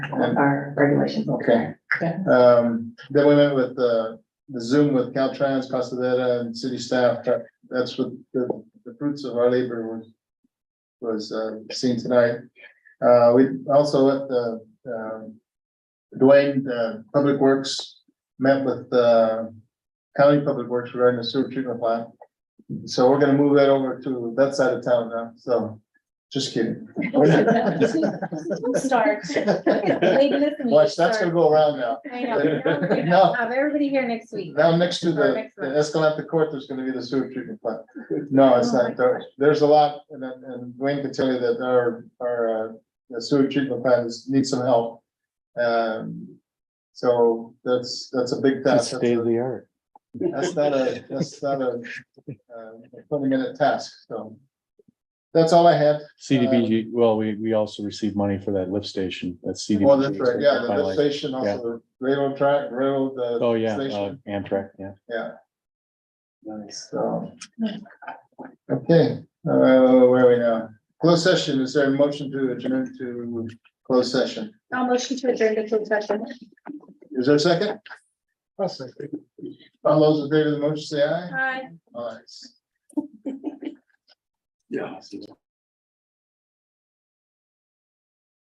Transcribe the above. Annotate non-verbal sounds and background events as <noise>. our <laughs> regulations. <laughs> Okay. Okay. Um, then we went with the, the Zoom with Caltrans, Costa and city staff. That- That's what the, the fruits of our labor was, was, uh, seen tonight. Uh, we also at the, um, Dwayne, uh, Public Works met with, uh, County Public Works regarding the sewer treatment plant. So we're gonna move that over to that side of town now, so, just kidding. Don't Start. Wait, listen, we Watch, that's gonna start. go around now. I know. <laughs> Now we're gonna Have everybody here next week. Now, next to Or the next the month. Escalante Court, there's gonna be the sewer treatment plant. No, it's Oh not. my There- gosh. There's a lot, and, and Wayne can tell you that our, our uh, the sewer treatment plant is, needs some help. Um, so that's, that's a big task. That's State of a- the art. That's not a, that's not a, uh, twenty minute task, so. That's all I had. CDBG, Um, well, we, we also received money for that lift station, that's CDBG. Well, that's right. Yeah, the lift Finally. station, also the railroad track, railroad, uh Oh, yeah, uh, station. Amtrak, yeah. Yeah. Nice, so. Okay, uh, where are we now? Closed session, is there a motion to adjourn to closed session? I'll motion to adjourn the closed session. Is there a second? I'll second. All those in favor of the motion, say aye. Hi. Aye. Yeah.